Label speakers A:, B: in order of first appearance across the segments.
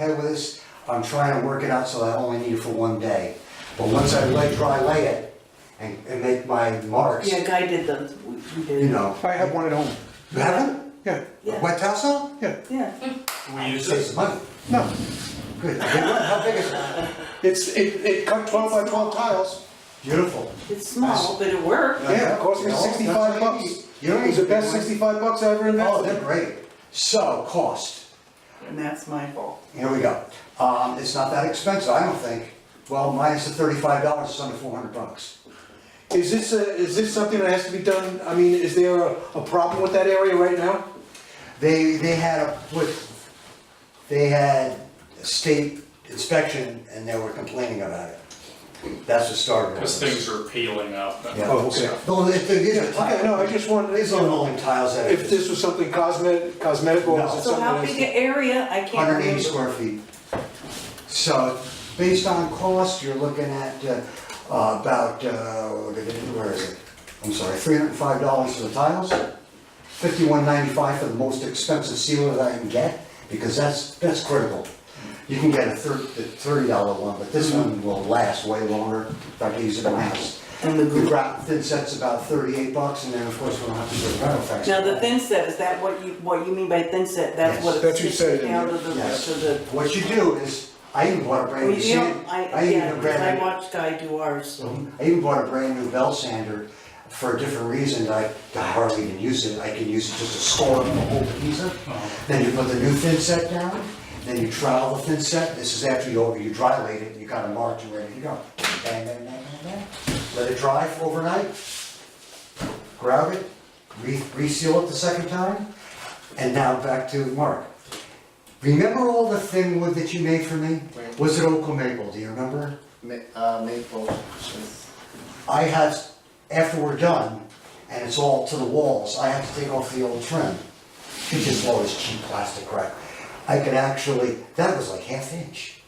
A: ahead with this, I'm trying to work it out so I only need it for one day. But once I lay, dry lay it and, and make my marks,
B: Yeah, Guy did them, we we did.
A: you know.
C: I have one at home.
A: You haven't?
C: Yeah,
B: Yeah.
A: Wet Tasso?
B: Yeah,
D: We use
A: Save
D: it,
A: some money.
C: no,
A: Good. Big one? How big is it?
C: it's, it, it cut twelve by twelve tiles.
A: Beautiful.
B: it's small, but it worked.
C: Yeah, it cost me
A: You know,
C: sixty-five
A: that's what you
C: bucks.
A: need. You don't
C: It was
A: need
C: the
A: to do
C: best
A: it.
C: sixty-five bucks I ever
A: Oh, they're
C: invested.
A: great. So, cost.
B: And that's my fault.
A: Here we go. Um, it's not that expensive, I don't think. Well, minus the thirty-five dollars, it's under four hundred bucks.
C: Is this, a- is this something that has to be done, I mean, is there a, a problem with that area right now?
A: They, they had a, with, they had a state inspection and they were complaining about it. That's the start of it.
D: because things are peeling up and
A: Yeah.
C: Oh, okay.
D: stuff.
A: No, it- it- it's a
C: Okay, no, I
A: tile.
C: just wanted,
A: These are rolling tiles that
C: if
A: are
C: this was something cosmetic, cosmetic or
A: No.
C: is it
B: So
C: something
B: how big
C: that's?
B: an area, I can't remember.
A: hundred eighty square feet. So based on cost, you're looking at uh, uh, about, uh, where is it? I'm sorry, three hundred and five dollars for the tiles, fifty-one ninety-five for the most expensive sealer that I can get, because that's, that's critical. You can get a thirty, the thirty dollar one, but this one will last way longer, if I can use it in my house.
B: Mm-hmm. And the
A: The
B: glue.
A: ground thin set's about thirty-eight bucks, and then of course we don't have to do the rental tax.
B: Now, the thin set, is that what you, what you mean by thin set? That's
A: Yes.
B: what
C: That's what you
B: it's
C: said,
B: sticking out of the,
A: Yes.
B: to the.
A: What you do is, I even bought a brand new
B: Museum?
A: sand,
B: I,
A: I
B: yeah,
A: even bought a
B: because I
A: brand
B: watched Guy do ours.
A: new, I even bought a brand new bell sander for a different reason, that I that I hardly even use it, I can use it just to score on the whole pizza. Then you put the new thin set down, then you trowel the thin set, this is after you, over- you dry laid it, you got it marked and ready to go. Bang, bang, bang, bang, bang, let it dry for overnight, grab it, re- reseal it the second time, and now back to Mark. Remember all the thin wood that you made for me?
E: Right.
A: Was it oak or maple, do you remember?
E: Ma- uh, maple, with
A: I had, after we're done, and it's all to the walls, I have to take off the old trim. Which is always cheap plastic crap. I could actually, that was like half inch.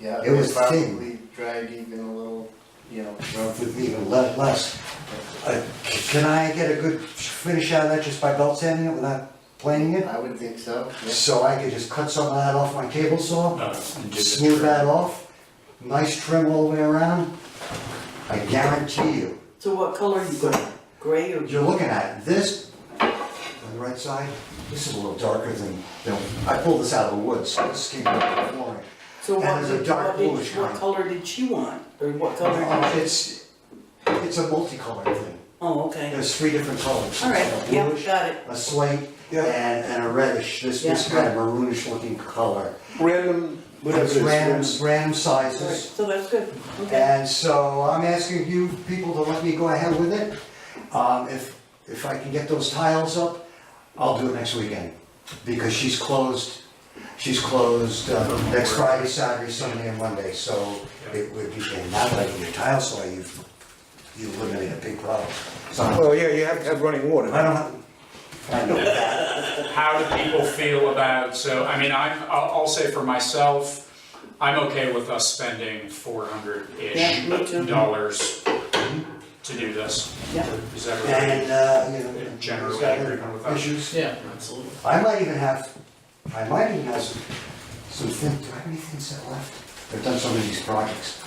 E: yeah,
A: It
E: they
A: was thin.
E: probably dried even a little, you know,
A: Well, With even le- less. Uh, c- Can I get a good finish out of that just by belt sanding it without planing it?
E: I would think so, yeah.
A: So I could just cut some of that off my table saw?
D: No, uh, and do the
A: smooth
D: trim.
A: that off, nice trim all the way around, I guarantee you,
B: So what color you got? Gray or?
A: you're looking at this, on the right side, this is a little darker than, than, I pulled this out of the woods, so this came out of the flooring.
B: So
A: And
B: what,
A: there's a
B: did-
A: dark
B: what did-
A: bluish
B: what
A: kind.
B: color did she want? Or what color?
A: Uh, It's, it's a multicolored thing,
B: Oh, okay.
A: there's three different colors.
B: All right,
A: A
B: yeah,
A: bluish,
B: got it.
A: A slate,
C: Yeah.
A: and, and a reddish, this, this
B: Yeah.
A: kind of maroonish looking color.
C: Random, whatever it
A: It's
C: is.
A: Random,
C: random.
A: random
B: All right,
A: sizes.
B: So that's good, okay.
A: And so I'm asking you people to let me go ahead with it. Um, if, if I can get those tiles up, I'll do it next weekend. Because she's closed, she's closed, uh, next Friday, Saturday, Sunday and Monday, so it would be, and now that I can get tiles, so you've, you eliminated a big problem. So I
C: Well, yeah, you have to have running water.
A: don't have, I know that.
D: How do people feel about, so, I mean, I'm, I'll, I'll say for myself, I'm okay with us spending four
B: Yeah, me
D: hundred-ish
B: too.
D: dollars to do this.
B: Yeah.
D: Is that right?
A: And, uh, you know.
D: Generally
A: she's got her
D: agreement with us.
A: Issues.
F: Yeah, absolutely.
A: I might even have, I might even have some, some thin, do I have any thin set left? I've done so many of these projects.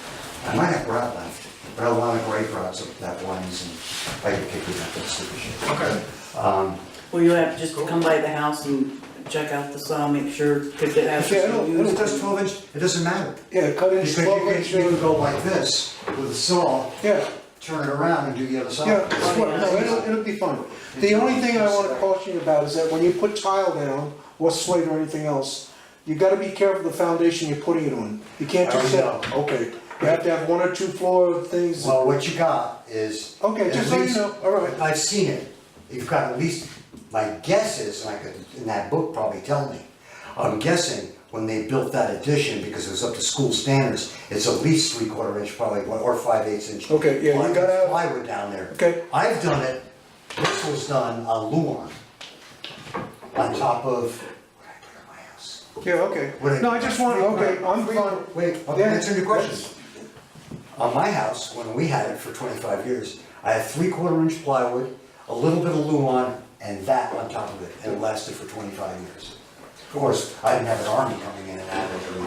A: I might have grout left, but I want a gray grout, so that one's, and I can kick it up, that's stupid shit.
D: Okay,
A: Um,
B: Well, you have just to come by the house and check out the saw, make sure, because it has.
C: Yeah, I don't- I
A: If it does twelve inch, it doesn't matter.
C: Yeah, cut in
A: Because you
C: twelve
A: can, you can
C: inch,
A: go like this with a saw,
C: yeah.
A: turn it around and do the other
C: Yeah,
A: side.
C: it's fine. no, it'll, it'll be fine. The only thing I wanna caution you about is that when you put tile down, or slate or anything else, you gotta be careful the foundation you're putting it on. You can't
A: I
C: just say,
A: already
C: okay, you have to have one or two floor things.
A: Well, what you got is.
C: Okay,
A: at
C: just so you
A: least-
C: know, all right.
A: I've seen it, you've got at least, my guess is, and I could, in that book probably tell me, I'm guessing when they built that addition, because it was up to school standards, it's at least three quarter inch probably, or five eighths inch.
C: Okay, yeah, you
A: plywood-
C: gotta have-
A: Plywood down there.
C: Okay.
A: I've done it, this was done on Luan, on top of, where did I put it in my house?
C: Yeah, okay.
A: What
C: No, I just want, okay, I'm
A: Wait,
C: fine.
A: Wait, I'm
C: Yeah.
A: answering your question. On my house, when we had it for twenty-five years, I had three-quarter inch plywood, a little bit of luan, and that on top of it, and it lasted for twenty-five years. Of course, I didn't have an army coming in and out every